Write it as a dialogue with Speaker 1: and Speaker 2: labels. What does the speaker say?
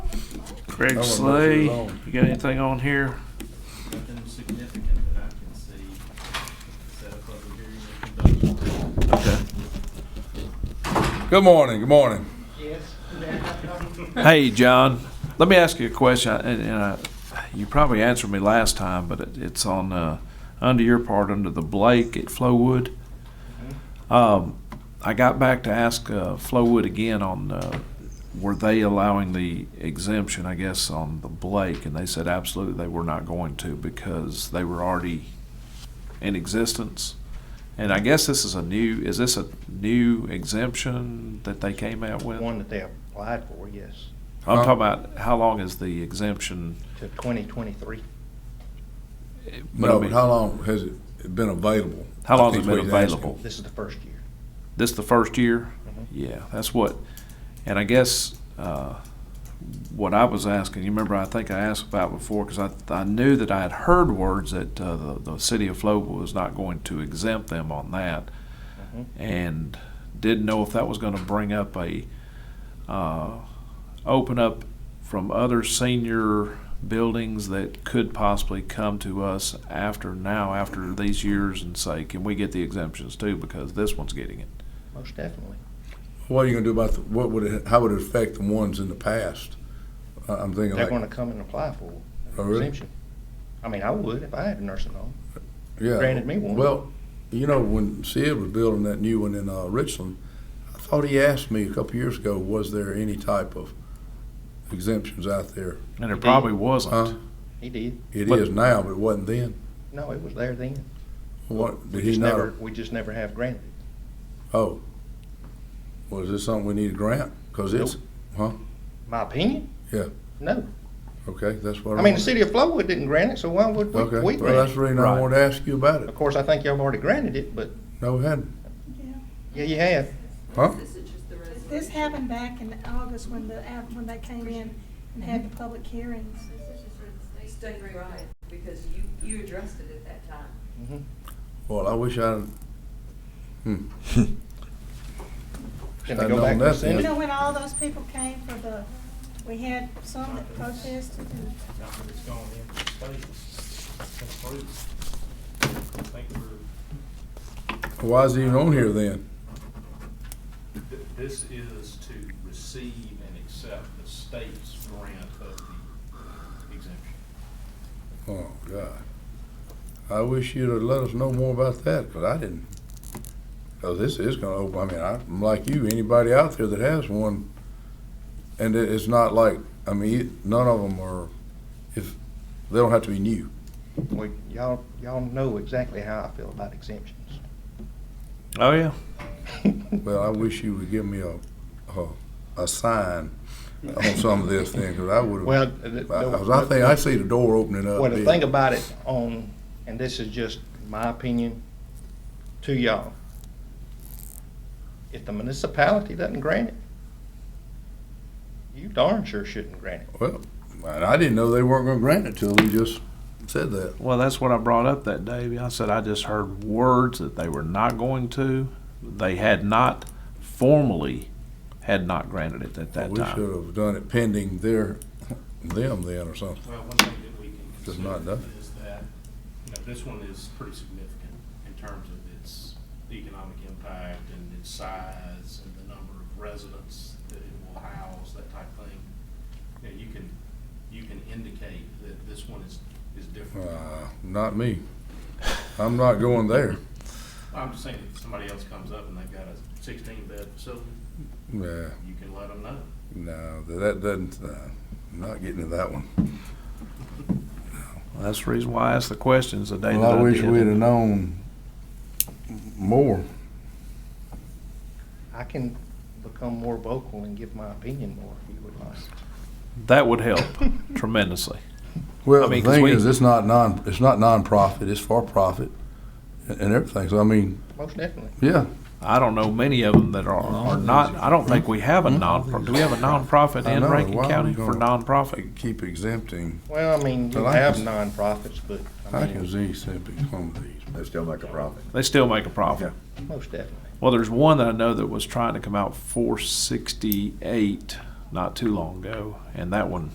Speaker 1: Greg
Speaker 2: gonna move
Speaker 1: Slay,
Speaker 2: it
Speaker 1: you
Speaker 2: along.
Speaker 1: got anything on here?
Speaker 3: Nothing significant that I can see. Set a public hearing and conduct. one.
Speaker 1: Okay.
Speaker 2: Good morning, good morning.
Speaker 1: Hey, John, let me ask you a question, and, and I, you probably answered me last time, but it, it's on, uh, under your part, under the Blake at Flowood. Um, I got back to ask, uh, Flowood again on, uh, were they allowing the exemption, I guess, on the Blake? And they said absolutely they were not going to because they were already in existence. And I guess this is a new, is this a new exemption that they came out with?
Speaker 4: One that they applied for, yes,
Speaker 1: I'm
Speaker 2: Huh?
Speaker 1: talking about how long is the exemption?
Speaker 4: to 2023.
Speaker 1: but I
Speaker 2: No,
Speaker 1: mean,
Speaker 2: but how long has it been available?
Speaker 1: How
Speaker 2: I
Speaker 1: long has
Speaker 2: think
Speaker 1: it been
Speaker 2: what he's asking.
Speaker 1: available?
Speaker 4: This is the first year.
Speaker 1: This the first year?
Speaker 2: Mm-hmm.
Speaker 4: Mhm.
Speaker 1: Yeah, that's what, and I guess, uh, what I was asking, you remember, I think I asked about before, because I, I knew that I had heard words that, uh, the, the city of Flowood was not going to exempt them on that.
Speaker 4: Mhm.
Speaker 1: and didn't know if that was going to bring up a uh, open up from other senior buildings that could possibly come to us after now after these years and say can we get the exemptions too because this one's getting it
Speaker 4: Most definitely.
Speaker 2: What are you gonna do about, the? what would it, how would it affect the ones in the past? I- I'm thinking
Speaker 4: They're going to
Speaker 2: like,
Speaker 4: come and apply for
Speaker 2: Oh,
Speaker 4: an
Speaker 2: really?
Speaker 4: exemption. I mean, I would if I had a nursing home.
Speaker 2: yeah.
Speaker 4: granted me one.
Speaker 2: Well, you know, when Sid was building that new one in, uh, Richland, I thought he asked me a couple years ago, was there any type of exemptions out there?
Speaker 1: and it
Speaker 4: Indeed.
Speaker 1: probably wasn't
Speaker 2: Huh?
Speaker 4: He did.
Speaker 2: It
Speaker 1: But-
Speaker 2: is now, but it wasn't then.
Speaker 4: No, it was there then.
Speaker 2: What,
Speaker 4: We
Speaker 2: did he
Speaker 4: just never,
Speaker 2: not?
Speaker 4: we just never have granted.
Speaker 2: Oh. Was this something we need a grant? Cause it's,
Speaker 4: My opinion?
Speaker 2: Yeah.
Speaker 4: No.
Speaker 2: okay, that's what.
Speaker 4: I mean,
Speaker 2: wanna-
Speaker 4: the city of Flowood didn't grant it, so why would we,
Speaker 2: Okay,
Speaker 4: we
Speaker 2: well, that's
Speaker 4: grant
Speaker 2: the
Speaker 4: it?
Speaker 2: reason I
Speaker 1: Right.
Speaker 2: wanted to ask you about it.
Speaker 4: Of course, I think y'all have already granted it, but,
Speaker 2: No, we hadn't.
Speaker 4: yeah, you have.
Speaker 2: Huh?
Speaker 5: This is just the resolution.
Speaker 6: This happened back in August when the, app- when they came in and had the public hearings.
Speaker 5: State right, because you, you addressed it at that time.
Speaker 4: Mhm.
Speaker 2: Well, I wish I, hmm,
Speaker 4: Can
Speaker 2: I
Speaker 4: they go
Speaker 2: know
Speaker 4: back to the
Speaker 2: nothing.
Speaker 6: You
Speaker 4: Senate?
Speaker 6: know, when all those people came for the, we had some that protested and
Speaker 3: Now that it's gone in for state, it's approved. I think we're,
Speaker 2: why is it even on here then?
Speaker 3: th- this is to receive and accept the state's grant of the exemption.
Speaker 2: Oh, God. I wish you'd have let us know more about that, cause I didn't. Cause this is gonna open, I mean, I'm like you, anybody out there that has one, and it, it's not like, I mean, none of them are, if, they don't have to be new.
Speaker 4: We, y'all, y'all know exactly how I feel about exemptions.
Speaker 1: oh yeah
Speaker 2: Well, I wish you would give me a, a, a sign on some of this thing, cause I would've.
Speaker 4: Well, the- the-
Speaker 2: I- 'cause I think, I see the door opening up.
Speaker 4: Well, the
Speaker 2: big.
Speaker 4: thing about it on, and this is just my opinion to y'all, if the municipality doesn't grant it, you darn sure shouldn't grant it.
Speaker 2: Well, and I didn't know they weren't gonna grant it till he just said that.
Speaker 1: well that's what i brought up that day i said i just heard words that they were not going to they had not formally had not granted it at that
Speaker 2: We
Speaker 1: time
Speaker 2: should have done it pending their, them then or something.
Speaker 3: Well, one thing that we can
Speaker 2: Just not
Speaker 3: consider
Speaker 2: done.
Speaker 3: is that, you know, this one is pretty significant in terms of its economic impact and its size and the number of residents that it will house, that type thing. You know, you can, you can indicate that this one is, is different.
Speaker 2: Uh, not me. I'm not going there.
Speaker 3: I'm just saying, if somebody else comes up and they've got a sixteen bed facility,
Speaker 2: Yeah,
Speaker 3: you can let them know.
Speaker 2: no, that doesn't, uh, not getting to that one.
Speaker 1: Well, that's the reason why i asked the questions the day
Speaker 2: Well,
Speaker 1: that
Speaker 2: I
Speaker 1: i
Speaker 2: wish
Speaker 1: did.
Speaker 2: we'd have known more.
Speaker 4: I can become more vocal and give my opinion more if you would like.
Speaker 1: that would help tremendously I
Speaker 2: Well, the
Speaker 1: mean, 'cause
Speaker 2: thing
Speaker 1: we-
Speaker 2: is, it's not non, it's not nonprofit, it's for profit and- and everything. So I mean,
Speaker 4: Most definitely.
Speaker 2: yeah,
Speaker 1: I don't know many of them that are, are not, I don't think we have a non, do we have a nonprofit
Speaker 2: I
Speaker 1: in
Speaker 2: know, why
Speaker 1: Rankin
Speaker 2: are we
Speaker 1: County for
Speaker 2: gonna-
Speaker 1: nonprofit?
Speaker 2: keep exempting.
Speaker 4: Well, I mean, you
Speaker 2: Well, I
Speaker 4: have
Speaker 2: can-
Speaker 4: nonprofits, but, I
Speaker 2: I can
Speaker 4: mean,
Speaker 2: see simply some of these.
Speaker 7: They still make a profit.
Speaker 1: They still make a profit.
Speaker 4: most definitely.
Speaker 1: Well, there's one that I know that was trying to come out four sixty-eight not too long ago, and that one